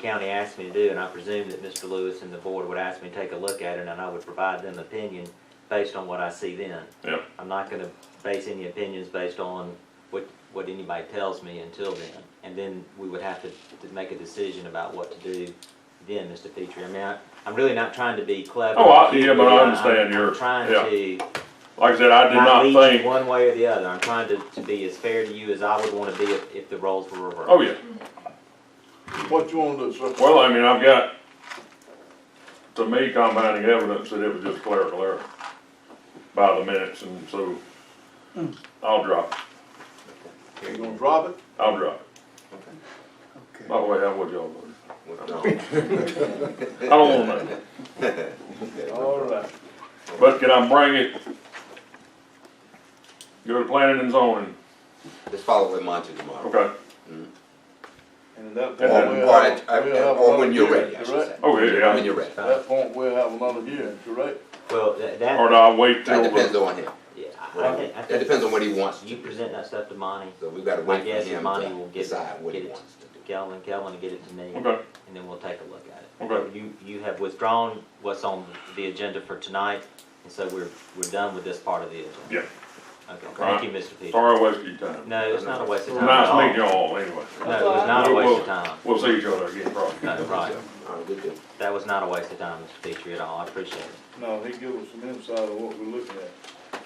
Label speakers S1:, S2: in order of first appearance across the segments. S1: county asked me to do, and I presume that Mr. Lewis and the board would ask me to take a look at it, and I would provide them opinion based on what I see then.
S2: Yep.
S1: I'm not gonna base any opinions based on what, what anybody tells me until then. And then we would have to, to make a decision about what to do then, Mr. Petrie. I mean, I, I'm really not trying to be clever.
S2: Oh, I- yeah, but I
S1: I'm-
S2: understand
S1: I'm
S2: your-
S1: Trying
S2: yeah.
S1: to
S2: Like I said, I did
S1: not
S2: not
S1: lead you
S2: think,
S1: one way or the other. I'm trying to, to be as fair to you as I would wanna be if, if the roles were reversed.
S2: oh yeah,
S3: What you wanna do, sir?
S2: well, I mean, I've got, to me, compounding evidence that it was just clerical error by the minutes, and so
S1: Hmm.
S2: I'll drop it,
S3: You gonna drop it?
S2: I'll drop it.
S4: Okay.
S2: By the way, how would y'all vote? I don't wanna know,
S3: All right.
S2: but can I bring it? Go to planning and zoning,
S5: Just follow with Monty tomorrow.
S2: okay,
S3: And
S2: And
S3: at that
S2: then-
S3: point, we'll
S5: Or at-
S3: have,
S5: at-
S3: we'll have
S5: or when
S3: another
S5: you're
S3: hearing,
S5: ready, I should say.
S3: correct?
S2: oh yeah,
S5: When
S2: yeah,
S5: you're ready.
S3: At that point, we'll have another hearing, correct?
S1: Well, that,
S2: or
S1: that,
S2: do I wait till
S5: That depends
S2: the,
S5: on him.
S1: yeah, I I think, I
S5: That
S1: think.
S5: depends on what he wants.
S1: You present that stuff to Monty,
S5: So we've gotta
S1: I
S5: wait
S1: guess
S5: for
S1: and
S5: him
S1: Monty will
S5: to
S1: get
S5: decide
S1: it,
S5: what
S1: get
S5: he
S1: it
S5: wants to
S1: to Kelvin, Kelvin will get it to me, and
S2: okay,
S1: then we'll take a look at it.
S2: Okay.
S1: You, you have withdrawn what's on the agenda for tonight, and so we're, we're done with this part of the agenda.
S2: Yeah.
S1: Okay,
S2: Alright.
S1: thank you, Mr. Peters.
S2: sorry, I wasted your time.
S1: No, it's not a waste of time at all.
S2: Nice meeting y'all, anyway,
S1: No, it was not a waste of time.
S2: we'll see each other again, probably.
S1: No,
S5: do.
S1: right,
S5: All right, good deal.
S1: that was not a waste of time, Mr. Petrie, at all, I appreciate it.
S3: No, he give us some insight of what we're looking at.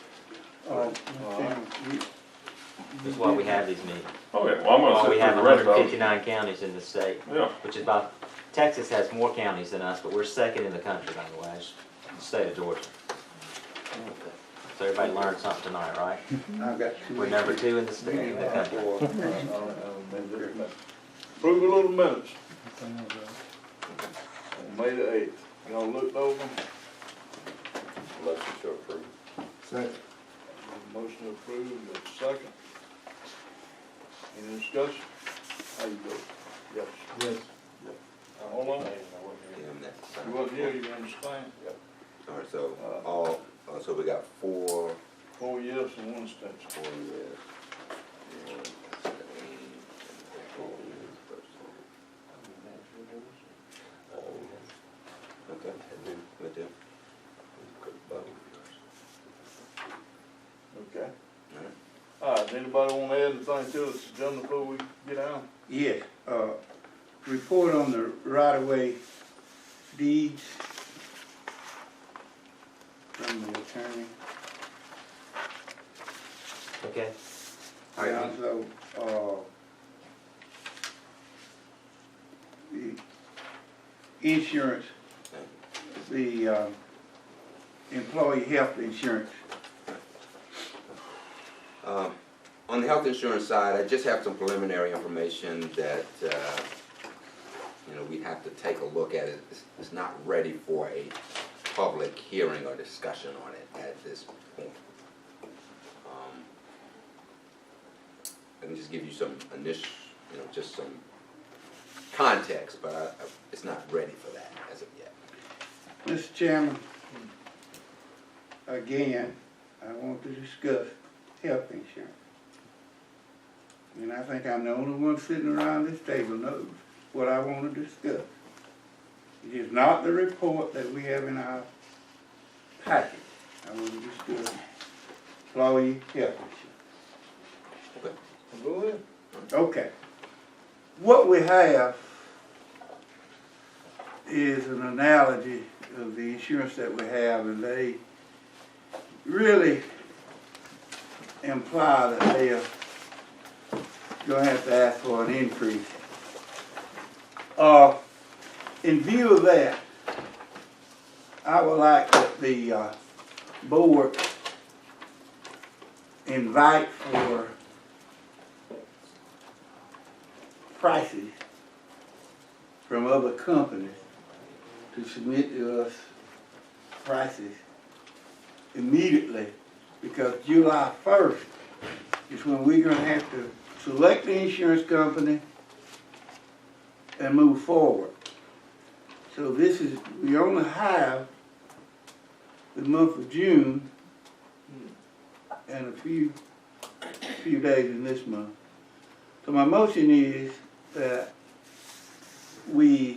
S4: All right, Mr. Chairman, you-
S1: That's why we have these meetings,
S2: Oh yeah, well, I'm gonna
S1: why
S2: sit
S1: we have
S2: through the rest
S1: hundred
S2: of
S1: and
S2: it.
S1: fifty-nine counties in the state.
S2: Yeah,
S1: which is about, Texas has more counties than us, but we're second in the country, by the way, it's the state of Georgia. So everybody learned something tonight, right?
S4: I've got two.
S1: We're number two in the state. in the country.
S3: I don't- I don't think this matters. Approval of the minutes on May the eighth. Y'all looked over them?
S5: Motion to approve.
S4: Second.
S3: Motion approved, a second. Any discussion? How you vote? Yes.
S4: Yes.
S3: Hold on.
S5: Damn, that's
S3: You
S5: fine.
S3: wasn't here, you understand?
S5: All right, so, all, uh, so we got four,
S3: Four yes and one abstention.
S5: four years. Okay, good deal.
S3: Okay. All right, anybody wanna add anything to this agenda before we get out?
S4: Yes, uh, report on the right-of-way deeds from the attorney.
S1: Okay,
S5: All right.
S4: And also, uh, the insurance, the, uh, employee health insurance.
S5: Um, On the health insurance side, I just have some preliminary information that, uh, you know, we have to take a look at it. It's- It's not ready for a public hearing or discussion on it at this point. Um, Let me just give you some initial, you know, just some context, but I- I- it's not ready for that as of yet.
S4: Mr. Chairman, again, I want to discuss health insurance. And I think I'm the only one sitting around this table knows what I want to discuss. It is not the report that we have in our packet. I want to discuss employee health insurance.
S3: Go ahead.
S4: Okay. What we have is an analogy of the insurance that we have, and they really imply that they are gonna have to ask for an increase. Uh, in view of that, I would like that the, uh, board invite for prices from other companies to submit to us prices immediately because July first is when we're gonna have to select the insurance company and move forward. So this is, we only have the month of June and a few, few days in this month. So my motion is that we